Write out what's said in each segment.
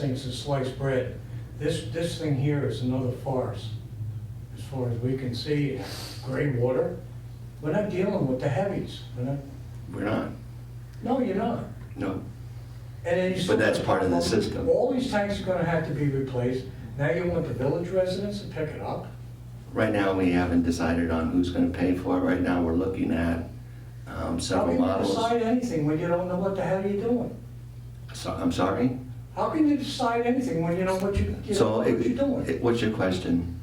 things to slice bread. This, this thing here is another farce, as far as we can see, gray water. We're not dealing with the heavies, we're not, We're not, no, you're not. no. And then you But that's part of the system. All these tanks are gonna have to be replaced. Now you want the village residents to pick it up? Right now, we haven't decided on who's gonna pay for it. Right now, we're looking at um, How several can you models. decide anything when you don't know what the hell you're doing? So, I'm sorry? How can you decide anything when you know what you, you So, don't know what it- you're doing? it- what's your question?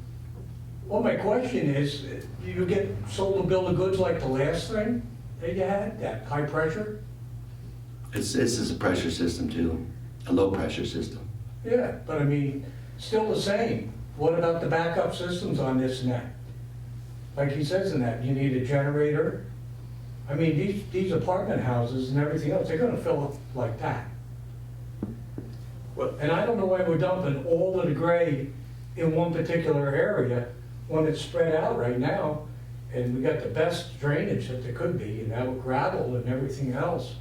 Well, my question is, you get sold a bill of goods like the last thing that you had, that high pressure? It's, this is a pressure system too, a low-pressure system. Yeah, but I mean, still the same. What about the backup systems on this and that? Like he says in that, you need a generator. I mean, these, these apartment houses and everything else, they're gonna fill up like that. Well- And I don't know why we're dumping all of the gray in one particular area when it's spread out right now. And we got the best drainage that there could be, and that gravel and everything else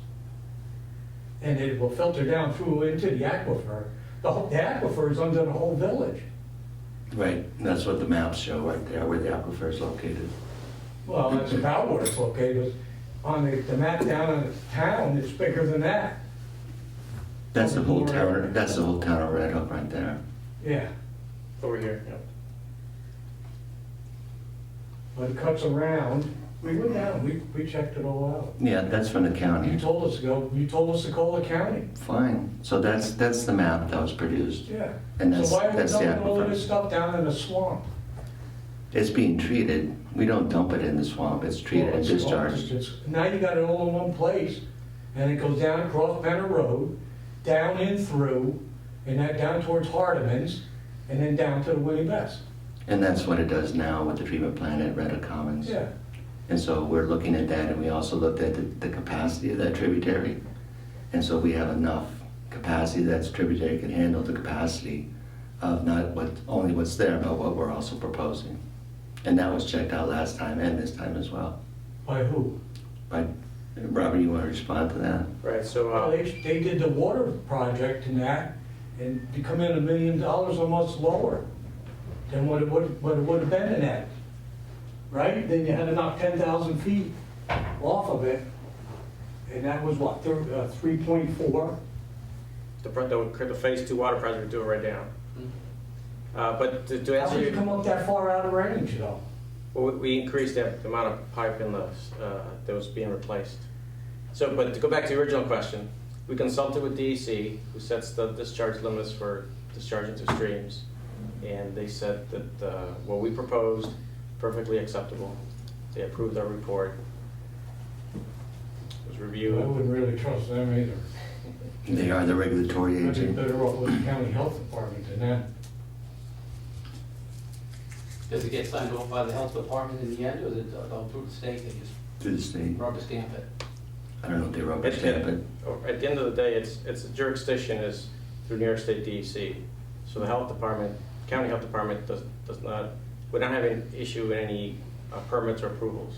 and it will filter down through into the aquifer. The whole, the aquifer is under the whole village. Right, and that's what the maps show right there, where the aquifer is located. Well, that's about where it's located. On the, the map down in the town, it's bigger than that. That's the whole town, that's the whole town of Red Hook right there. Yeah, Over here, yeah. but it cuts around. We went down, we, we checked it all Yeah, that's from the out. You county. told us to go, you told us to call the county. Fine, so that's, that's the map that was produced. Yeah. And So that's- why are we that's the dumping all of this aquifer. stuff down in the swamp? It's being treated. We don't dump it in the swamp, it's treated Well, and it's- discharged. it's- Now you got it all in one place, and it goes down across Benner Road, down in through, and that down towards Hardeman's, and then down to the Willie Best. And that's what it does now with the treatment plant at Redding Commons. Yeah, And so we're looking at that, and we also looked at the, the capacity of that tributary. And so we have enough capacity that tributary can handle the capacity of not what, only what's there, but what we're also proposing. And that was checked out last time and this time as well. by who? But, Robert, you want to respond to that? Right, so, Well, uh, they, they did the water project and that, and they come in a million dollars or much lower than what it would, what it would have been in that. Right? Then you had to knock ten thousand feet off of it, and that was what, uh, three point four? the front, the, the phase two water project we're doing right now. Uh, but to- to How answer did you your, come up that far out of range, though? well, we- we increased that the amount of pipe in the, uh, that was being replaced. So, but to go back to the original question, we consulted with DEC, who sets the discharge limits for discharge into streams. And they said that, uh, what we proposed, perfectly acceptable. They approved our report. It was reviewed. wouldn't really trust them either. They are the regulatory I'd be agent. better off with the county health department than that. Does it get signed off by the health department in the end, or is it done through the state, they just To the state. rubber stamp it? I don't know if they rubber At stamp it. the, or at the end of the day, it's, it's jurisdiction is through New York State DEC. So the health department, county health department does, does not, we don't have an issue with any uh, permits or approvals.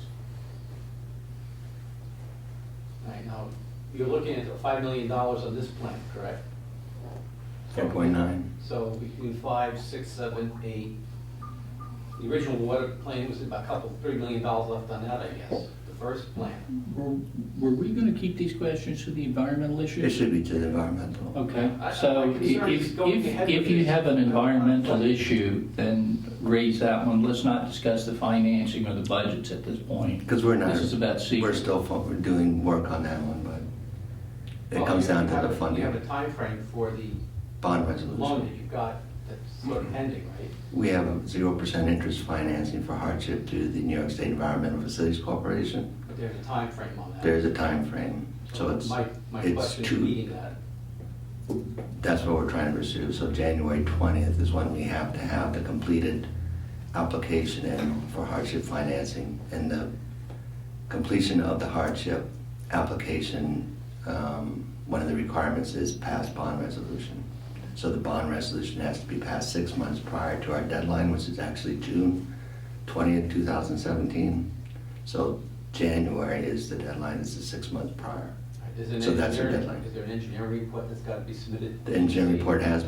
Right now, you're looking at five million dollars on this plan, correct? Four point nine. So between five, six, seven, eight, the original water plan was about a couple, three million dollars left on that, I guess, the first plan. Were were we going to keep these questions to the environmental It issues? should be to the environmental. Okay, I- I- my so concern is if, going ahead if, with if you this. have an environmental Uh, issue, then raise that one. Let's not discuss the financing or the budgets at this point. Because we're not. This is about secret. We're still, fo- we're doing work on that one, but it Well, comes you down have to a- the You Oh, have a funding, timeframe for the bond loan that resolution. you've got that's sort of pending, right? We have a zero percent interest financing for hardship to the New York State Environmental Facilities Corporation. But there's a timeframe on that. There's a time frame, so it's, My, my it's question is two, meeting that. that's what we're trying to pursue. So January twentieth is when we have to have the completed application in for hardship financing. And the completion of the hardship application, um, one of the requirements is pass bond resolution. So the bond resolution has to be passed six months prior to our deadline, which is actually June twentieth, two thousand seventeen. So January is the deadline, it's the six months prior. Is there an So that's your engineering- deadline. Is there an engineering report that's got to be submitted? The engineering report has